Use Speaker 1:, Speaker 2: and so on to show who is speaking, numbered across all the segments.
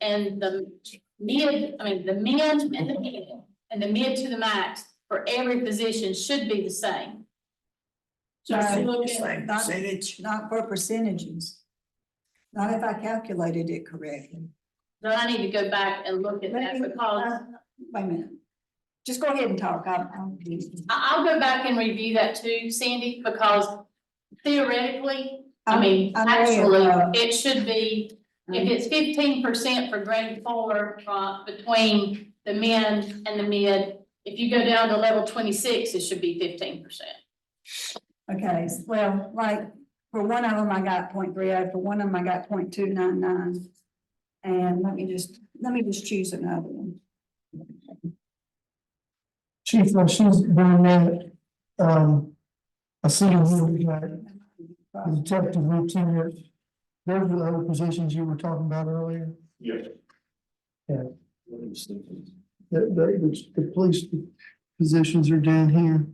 Speaker 1: and the mid, I mean, the mid and the mid, and the mid to the max for every position should be the same.
Speaker 2: Just
Speaker 3: Right.
Speaker 2: look
Speaker 3: Same
Speaker 2: at, not,
Speaker 3: percentage.
Speaker 2: not for percentages. Not if I calculated it correctly.
Speaker 1: But I need to go back and look at that
Speaker 2: Let me-
Speaker 1: because
Speaker 2: uh, Wait a minute. Just go ahead and talk, I'm, I'm. confused.
Speaker 1: I, I'll go back and review that too, Sandy, because theoretically, I mean,
Speaker 2: I'm- I'm
Speaker 1: actually,
Speaker 2: aware, uh,
Speaker 1: it should be, if it's fifteen percent for grade four, uh, between the men and the mid, if you go down to level twenty-six, it should be fifteen percent.
Speaker 2: Okay, s- well, like, for one of them, I got 0.30. for one of them, I got 0.299, And let me just, let me just choose another one.
Speaker 4: Chief, while she's doing that, um, I see you really got the detective routine. Those are the other positions you were talking about earlier,
Speaker 5: Yes.
Speaker 4: Yeah. the, the, the police positions are down here.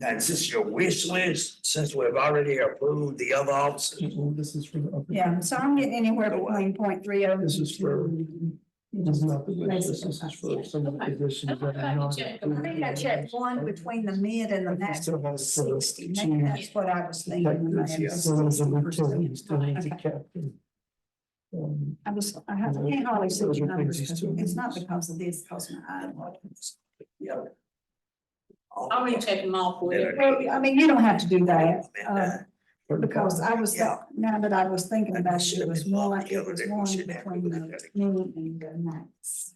Speaker 3: Now, is this your wish list, since we've already approved the other officers?
Speaker 4: This is for the.
Speaker 2: Yeah, so I'm getting anywhere between oh. 0.30.
Speaker 4: uh, This is for, this is not the wish list, this is for some of the positions that are not.
Speaker 2: I think I checked one between the mid and the max.
Speaker 4: Still has the
Speaker 2: Sixty, maybe
Speaker 4: two.
Speaker 2: that's what I was thinking. when I had
Speaker 4: So there's a lieutenant, you still need to
Speaker 2: Okay.
Speaker 4: captain. Um,
Speaker 2: I was, I have, I can't hardly see
Speaker 4: Those
Speaker 2: the
Speaker 4: are
Speaker 2: numbers,
Speaker 4: things too.
Speaker 2: it's not because of this, because my eye.
Speaker 3: Yeah.
Speaker 1: I'll recheck them all for you.
Speaker 2: Well, I mean, you don't have to do that, uh,
Speaker 3: And,
Speaker 2: because I was,
Speaker 3: Yeah.
Speaker 2: now that I was thinking about it, it was more like it was
Speaker 3: Yeah,
Speaker 2: one
Speaker 3: should have
Speaker 2: between the
Speaker 3: been better.
Speaker 2: moon and the max.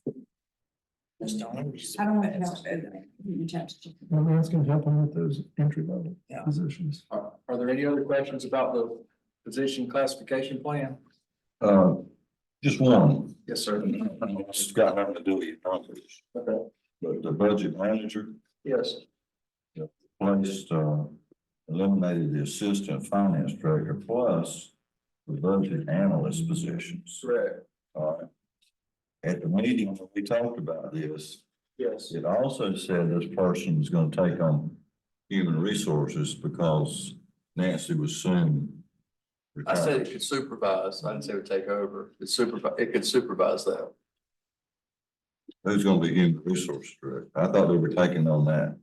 Speaker 3: That's the only reason.
Speaker 2: I don't want to
Speaker 3: that's
Speaker 2: have to do that. You just have to check.
Speaker 4: Well, that's gonna help them with those entry level
Speaker 3: Yeah.
Speaker 4: positions.
Speaker 6: Are, are there any other questions about the position classification plan?
Speaker 7: Uh, just one,
Speaker 6: Yes, sir.
Speaker 7: this has got nothing to do with your numbers,
Speaker 6: Okay,
Speaker 7: but the budget manager
Speaker 6: yes.
Speaker 7: placed, uh, eliminated the assistant finance director plus the budget analyst positions.
Speaker 6: Correct,
Speaker 7: All right. At the meeting, when we talked about this,
Speaker 6: yes.
Speaker 7: it also said this person was gonna take on human resources because Nancy was soon.
Speaker 6: I
Speaker 7: retired.
Speaker 6: said it could supervise, I didn't say it would take over, it supervise, it could supervise that.
Speaker 7: Who's gonna be human resources director? I thought they were taking on that.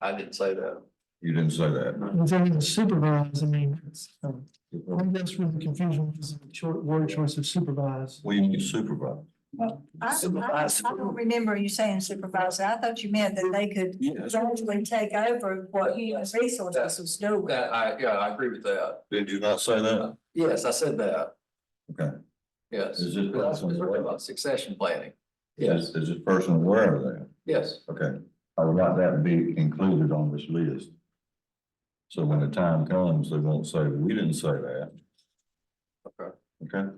Speaker 6: I didn't say that.
Speaker 7: You didn't say that.
Speaker 4: And then the supervise, I mean, it's, um, I think that's where the confusion was, the short word choice of supervise.
Speaker 7: We need supervisor.
Speaker 2: Well, I, I,
Speaker 3: Supervisor.
Speaker 2: I don't remember you saying supervisor, I thought you meant that they could
Speaker 7: Yes.
Speaker 2: gradually take over what human resources was doing.
Speaker 6: That, I, yeah, I agree with that.
Speaker 7: Did you not say that?
Speaker 6: Yes, I said that,
Speaker 7: Okay.
Speaker 6: yes.
Speaker 7: Is it-
Speaker 6: We're talking about Succession planning. Yes,
Speaker 7: Is this person aware of that?
Speaker 6: yes,
Speaker 7: Okay, I would like that to be included on this list. So when the time comes, they won't say, we didn't say that.
Speaker 6: Okay.
Speaker 7: Okay,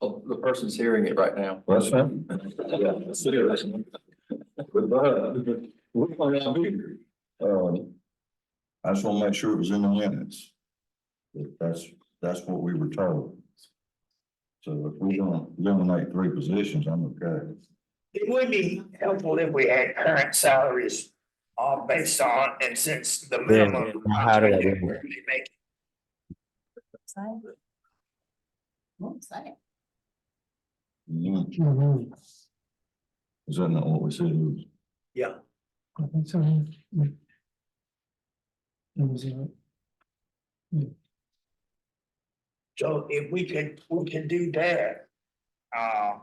Speaker 6: Oh, the person's hearing it right now.
Speaker 7: well, that's fine. Goodbye. We're
Speaker 6: Oh,
Speaker 7: gonna be here. Um, I just want to make sure it was in the minutes. That- That's, that's what we were told. So if we're gonna eliminate three positions, I'm okay.
Speaker 3: It would be helpful if we had current salaries all based on, and since the minimum.
Speaker 8: how do I do it?
Speaker 3: They make
Speaker 1: What's that?
Speaker 7: Mm,
Speaker 4: Mhm.
Speaker 7: Is that not what we said?
Speaker 4: I think so. yeah. Yeah. That was it.
Speaker 3: So if we could, we could do that. Uh.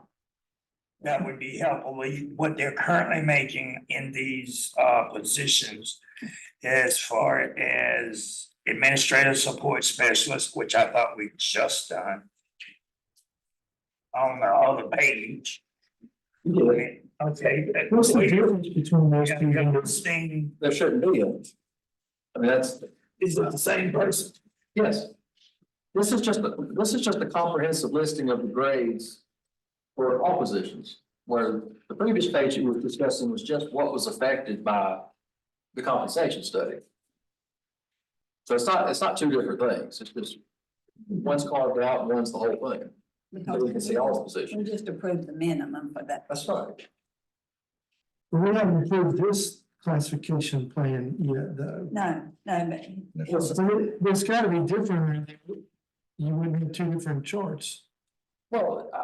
Speaker 3: That would be helpful, what they're currently making in these uh positions. As far as administrative support specialist, which I thought we just done. On the other page. Okay. that-
Speaker 4: What's the difference between those
Speaker 3: Yeah,
Speaker 4: two?
Speaker 3: yeah,
Speaker 4: numbers?
Speaker 3: Same,
Speaker 6: There shouldn't be any. I mean, that's,
Speaker 3: is it the same person?
Speaker 6: yes. This is just, a- this is just a comprehensive listing of the grades for all positions, where the previous page you were discussing was just what was affected by the compensation study. So it's not, it's not two different things, it's just, one's carved out, and one's the whole thing, so we can see
Speaker 4: "Oh,
Speaker 6: all the
Speaker 2: We
Speaker 6: positions.
Speaker 2: just approved the minimum for that.
Speaker 6: That's right.
Speaker 4: We haven't approved this classification plan yet, though.
Speaker 2: No, no, but
Speaker 4: So it- It's gotta be different. You wouldn't have two different charts.
Speaker 6: Well,